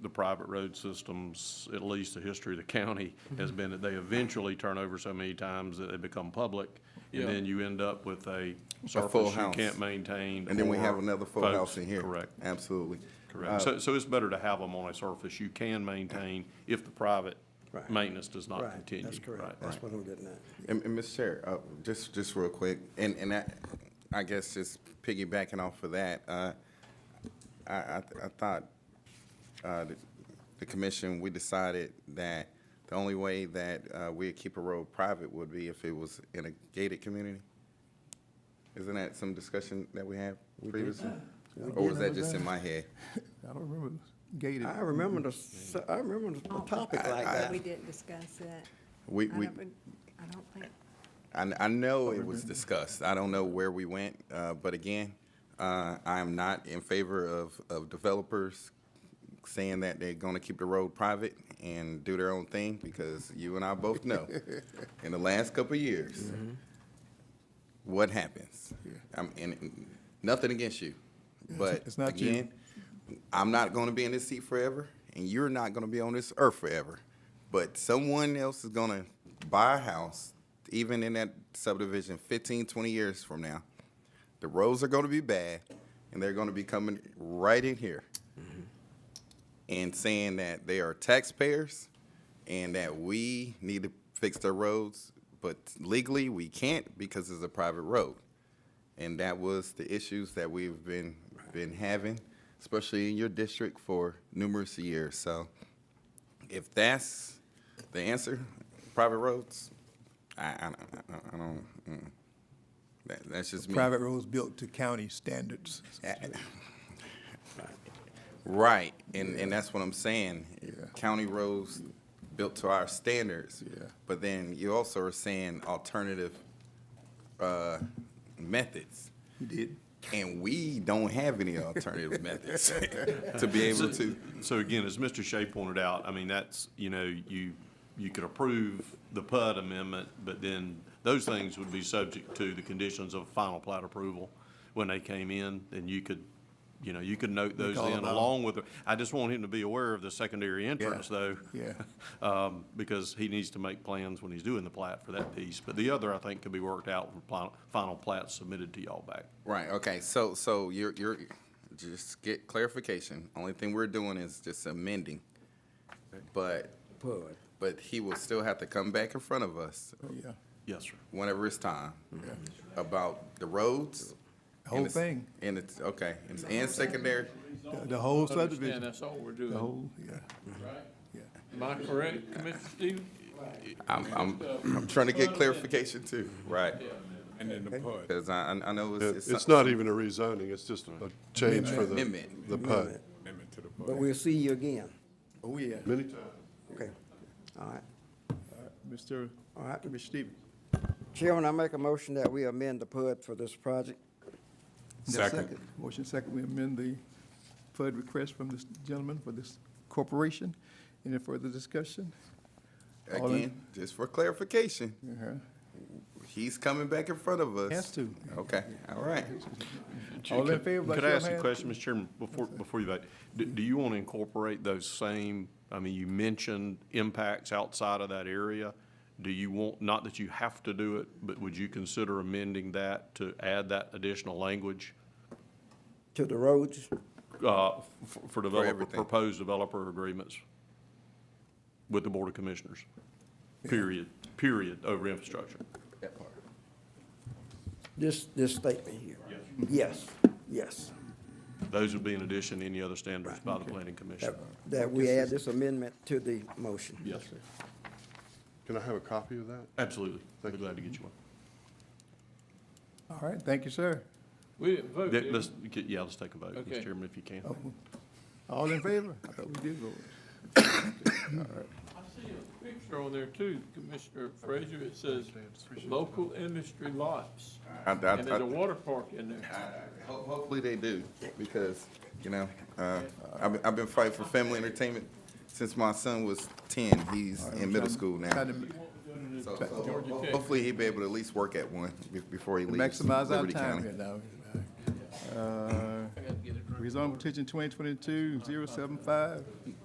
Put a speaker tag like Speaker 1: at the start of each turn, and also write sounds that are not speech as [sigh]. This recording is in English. Speaker 1: the private road systems, at least the history of the county,
Speaker 2: Mm-hmm.
Speaker 1: has been that they eventually turn over so many times that they become public.
Speaker 3: Yeah.
Speaker 1: And then you end up with a
Speaker 4: full
Speaker 1: surface you
Speaker 4: house.
Speaker 1: can't maintain.
Speaker 4: And then we have
Speaker 1: or
Speaker 4: another full
Speaker 1: folks-
Speaker 4: house in here. Uh,
Speaker 1: Correct,
Speaker 4: Absolutely.
Speaker 1: correct. So, so it's better to have them on a surface you can maintain if the private
Speaker 2: Right.
Speaker 1: maintenance does not
Speaker 2: Right,
Speaker 1: continue.
Speaker 2: that's
Speaker 1: Right,
Speaker 2: correct. That's
Speaker 1: right.
Speaker 2: what I'm getting at.
Speaker 4: And, and Mr. Chair, uh, just, just real quick, and, and I, I guess just piggybacking off of that, uh, I, I, I thought, uh, the- the commission, we decided that the only way that, uh, we'd keep a road private would be if it was in a gated community? Isn't that some discussion that we had previously? Or was that just in my head?
Speaker 5: I don't remember gated. Mm-hmm.
Speaker 2: I remember the, s- I remember the topic like that.
Speaker 6: We didn't discuss that.
Speaker 4: We,
Speaker 6: I
Speaker 4: we,
Speaker 6: don't, I don't think,
Speaker 4: I, I know it was discussed. I don't know where we went, uh, but again, uh, I'm not in favor of, of developers saying that they're gonna keep the road private and do their own thing, because you and I
Speaker 5: [laughs]
Speaker 4: both know, in the last couple of years,
Speaker 5: Mm-hmm.
Speaker 4: what happens? I'm, and, nothing against you, but
Speaker 5: it's not you.
Speaker 4: again, I'm not gonna be in this seat forever, and you're not gonna be on this earth forever. But someone else is gonna buy a house, even in that subdivision, 15, 20 years from now. The roads are gonna be bad, and they're gonna be coming right in here and saying that they are taxpayers and that we need to fix their roads, but legally we can't because it's a private road. And that was the issues that we've been, been having, especially in your district for numerous years. So if that's the answer, private roads, I, I, don't- I don't, mm. that, that's just me.
Speaker 5: Private roads built to county standards.
Speaker 4: Right, and, and that's what I'm saying.
Speaker 5: Yeah.
Speaker 4: County roads built to our standards.
Speaker 5: Yeah.
Speaker 4: But then you also are saying alternative, uh, methods.
Speaker 5: You did.
Speaker 4: And we don't have any alternative methods [laughs] to be able to.
Speaker 1: So again, as Mr. Shea pointed out, I mean, that's, you know, you, you could approve the PUD amendment, but then those things would be subject to the conditions of final plat approval when they came in, and you could, you know, you could note those
Speaker 5: all
Speaker 1: in
Speaker 5: about 'em.
Speaker 1: along with, the- I just want him to be aware of the secondary entrance, though.
Speaker 5: Yeah.
Speaker 1: Um, because he needs to make plans when he's doing the plat for that piece. But the other, I think, could be worked out when final, final plat submitted to y'all back.
Speaker 4: Right, okay, so, so you're, you're, just get clarification. Only thing we're doing is just amending. But,
Speaker 2: Pud.
Speaker 4: but he will still have to come back in front of us
Speaker 5: Oh, Yeah.
Speaker 1: Yes, sir.
Speaker 4: whenever it's time about the roads.
Speaker 5: The whole
Speaker 4: and it's-
Speaker 5: thing.
Speaker 4: And it's, okay, and- and secondary,
Speaker 5: The- The whole
Speaker 3: Understand,
Speaker 5: subdivision,
Speaker 3: that's all we're
Speaker 5: the
Speaker 3: doing,
Speaker 5: whole, yeah.
Speaker 3: right?
Speaker 5: Yeah.
Speaker 3: Am I correct, Commissioner Stevens?
Speaker 4: I'm, I'm, [laughs] I'm trying to get clarification too, right?
Speaker 7: And then the PUD.
Speaker 4: Because I, I I know
Speaker 8: Yeah,
Speaker 4: it's.
Speaker 8: It's not even a rezoning, it's just a change for the,
Speaker 4: Amendment.
Speaker 8: the PUD.
Speaker 7: Amendment to the
Speaker 2: But
Speaker 7: PUD.
Speaker 2: we'll see you again.
Speaker 5: Oh, yeah.
Speaker 8: Many times.
Speaker 2: Okay. All right.
Speaker 5: Mr.
Speaker 2: All right.
Speaker 5: Mr. Stevens.
Speaker 2: Chairman, I make a motion that we amend the PUD for this project.
Speaker 7: Second.
Speaker 5: Motion second, we amend the flood request from this gentleman for this corporation. Any further discussion? All in-
Speaker 4: Again, just for clarification,
Speaker 5: Uh-huh.
Speaker 4: he's coming back in front of us.
Speaker 5: Has to.
Speaker 4: Okay, all right.
Speaker 5: All in favor, by
Speaker 1: Could
Speaker 5: show
Speaker 1: I
Speaker 5: of
Speaker 1: ask a
Speaker 5: hands?
Speaker 1: question, Mr. Chairman, before, before you vote? Do, do you want to incorporate those same, I mean, you mentioned impacts outside of that area. Do you want, not that you have to do it, but would you consider amending that to add that additional language?
Speaker 2: To the roads,
Speaker 1: uh, f- For developer,
Speaker 4: everything.
Speaker 1: proposed developer agreements with the Board of Commissioners? Period, period, over infrastructure.
Speaker 2: this, this statement here. Yes, yes.
Speaker 1: Those would be in addition to any other standards by the Planning Commission.
Speaker 2: That, that we add this amendment to the motion.
Speaker 1: Yes, sir.
Speaker 8: Can I have a copy of that?
Speaker 1: absolutely. We're glad to get you one.
Speaker 5: All right, thank you, sir.
Speaker 3: We didn't vote,
Speaker 1: Yeah,
Speaker 3: did we?
Speaker 1: Let's, yeah, let's take a vote, Mr.
Speaker 3: Okay.
Speaker 1: Chairman, if you can.
Speaker 5: All in favor? I thought we did vote.
Speaker 3: I see a picture on there too, Commissioner Frazier, it says local industry lots.
Speaker 4: I- I-
Speaker 3: And there's
Speaker 4: I-
Speaker 3: a water park in there.
Speaker 4: Ho- Hopefully they do, because, you know, uh, I've, been- I've been fighting for family entertainment since my son was ten. He's in middle school now.
Speaker 5: Trying to
Speaker 4: So- so ho- Hopefully he'll be able to at least work at one be- before he leaves
Speaker 5: Maximize our
Speaker 4: Liberty
Speaker 5: time
Speaker 4: County.
Speaker 5: here now. Uh, Rezone petition 2022-075,